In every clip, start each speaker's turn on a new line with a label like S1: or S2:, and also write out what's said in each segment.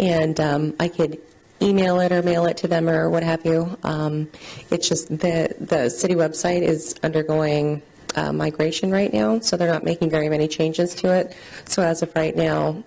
S1: And um, I could email it or mail it to them or what have you. Um, It's just the, the city website is undergoing uh, migration right now, so they're not making very many changes to it. So as of right now,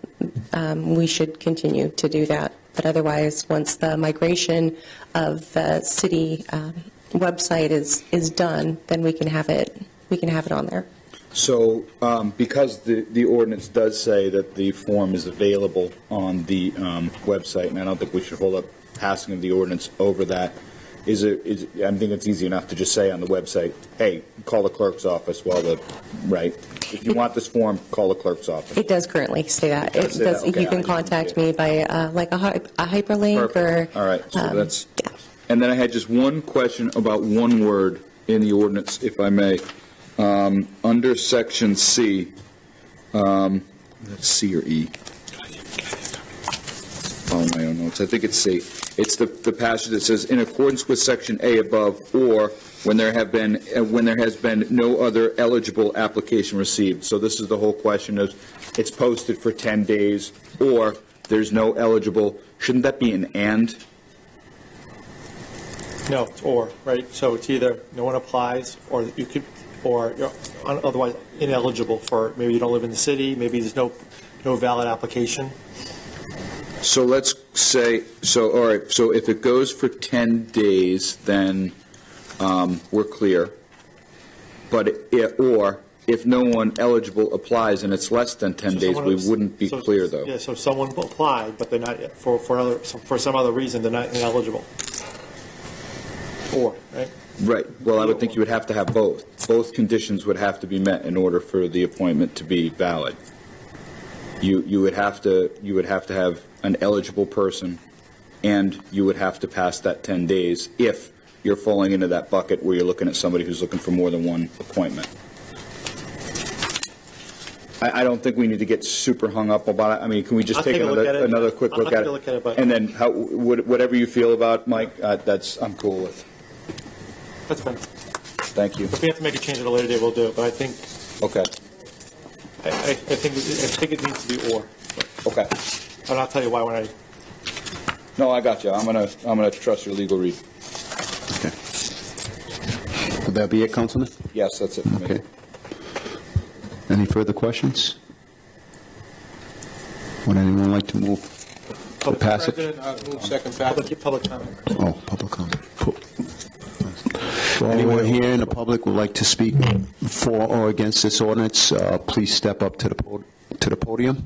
S1: um, we should continue to do that. But otherwise, once the migration of the city um, website is, is done, then we can have it, we can have it on there.
S2: So, um, because the, the ordinance does say that the form is available on the um, website, and I don't think we should hold up passing of the ordinance over that, is it, is, I think it's easy enough to just say on the website, hey, call the clerk's office while the, right? If you want this form, call the clerk's office.
S1: It does currently say that.
S2: It
S1: It
S2: does say
S1: does,
S2: that, okay,
S1: you
S2: I
S1: can
S2: didn't
S1: contact
S2: see it.
S1: me by, uh, like, a hy- a hyperlink or...
S2: Perfect. All right, so
S1: um,
S2: that's,
S1: yeah.
S2: and then I had just one question about one word in the ordinance, if I may. Um, Under section C, um, C or E? follow my own notes, I think it's C. It's the, the passage that says, "In accordance with Section A above, or when there have been, uh, when there has been no other eligible application received." So this is the whole question of, it's posted for 10 days, or there's no eligible, shouldn't that be an "and"?
S3: No, it's or, right? So it's either no one applies, or you could, or you're un- otherwise ineligible for, maybe you don't live in the city, maybe there's no, no valid application.
S2: So let's say, so, all right, so if it goes for 10 days, then um, we're clear. But, i- or if no one eligible applies and it's less than 10
S3: So
S2: days,
S3: someone
S2: we
S3: else-
S2: wouldn't be
S3: so-
S2: clear, though.
S3: Yeah, so if someone applied, but they're not, for, for other, for some other reason, they're not ineligible. Or, right?
S2: Right, well, I would think you would have to have both. Both conditions would have to be met in order for the appointment to be valid. You, you would have to, you would have to have an eligible person, and you would have to pass that 10 days if you're falling into that bucket where you're looking at somebody who's looking for more than one appointment. I, I don't think we need to get super hung up about it. I mean, can we just
S3: I'll
S2: take
S3: take a look at
S2: another,
S3: it.
S2: another quick
S3: I'll
S2: look
S3: take
S2: at it?
S3: a look at it, but-
S2: And then how, wh- whatever you feel about, Mike, uh, that's, I'm cool with.
S3: That's fine.
S2: Thank you.
S3: If we have to make a change at a later date, we'll do it, but I think,
S2: Okay,
S3: I, I I think, I think it needs to be or.
S2: okay.
S3: And I'll tell you why when I,
S2: No, I got you. I'm gonna, I'm gonna trust your legal read.
S4: Would that be it, Councilman?
S2: Yes, that's it for me.
S4: Okay. Any further questions? Would anyone like to move the passage?
S3: uh,
S5: President, I move second passage.
S3: public, public comment.
S4: Oh, public comment. Anyone here in the public would like to speak for or against this ordinance, uh, please step up to the pod- to the podium.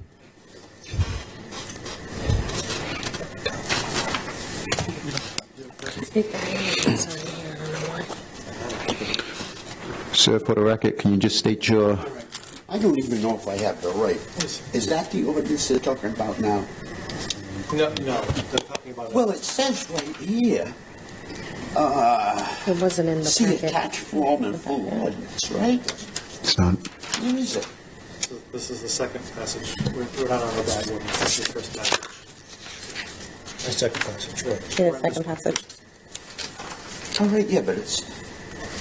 S4: Sir, for the record, can you just state your
S6: I don't even know if I have the right. Is that the ordinance they're talking about now?
S3: No, no, they're talking about it.
S6: Well, it says right here,
S7: It wasn't in the
S6: see
S7: packet.
S6: attached form and full ordinance, right?
S4: It's not,
S6: Where is it?
S3: This is the second passage. We're we're not on the bad one. This is the first passage.
S5: My second passage, right.
S7: Yeah, the second passage.
S6: All Oh, right, yeah, but it's,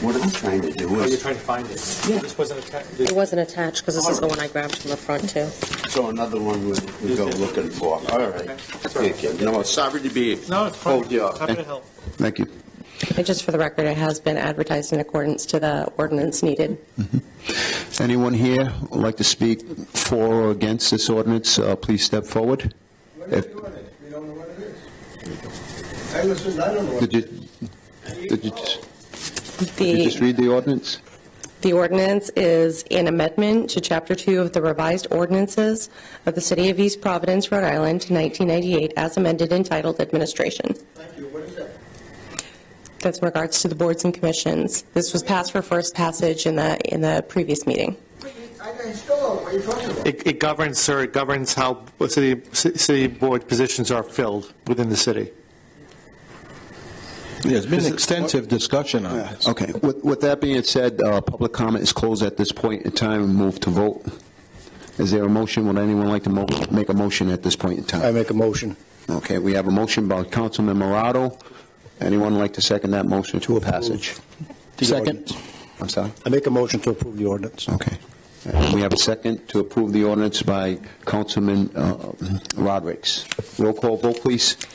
S6: what I'm trying to do
S3: Oh, you're
S6: is,
S3: trying to find it.
S6: Yeah.
S3: This wasn't a, ta- this-
S7: It wasn't attached because this is the one I grabbed from the front too.
S6: so another one we we go looking for. All right. Thank you. No, sorry to be.
S3: no, it's fine.
S6: Oh, yeah.
S3: Happy to help.
S4: thank you.
S1: And just for the record, it has been advertised in accordance to the ordinance needed.
S4: Mm-hmm. Anyone here would like to speak for or against this ordinance, uh, please step forward.
S8: What is the ordinance? We don't know what it is. I listened, I don't know what
S4: Did
S8: it
S4: you,
S8: is.
S4: did you just- did you just
S1: The,
S4: read the ordinance?
S1: the ordinance is an amendment to Chapter 2 of the revised ordinances of the City of East Providence, Rhode Island, 1998, as amended entitled Administration.
S8: Thank you, what is that?
S1: That's in regards to the boards and commissions. This was passed for first passage in the, in the previous meeting.
S8: I I still don't know what you're talking about.
S3: It it governs, sir, it governs how city, ci- city board positions are filled within the city.
S5: There's been extensive discussion on this.
S4: Okay, with, with that being said, uh, public comment is closed at this point in time, and move to vote. Is there a motion, would anyone like to mo- make a motion at this point in
S5: I
S4: time?
S5: make a motion
S4: Okay, we have a motion by Councilman Morado, anyone like to second that motion to a passage?
S5: Second.
S4: I'm sorry?
S5: I make a motion to approve the ordinance.
S4: Okay. And we have a second to approve the ordinance by Councilman uh, Rodericks. Roll call vote, please.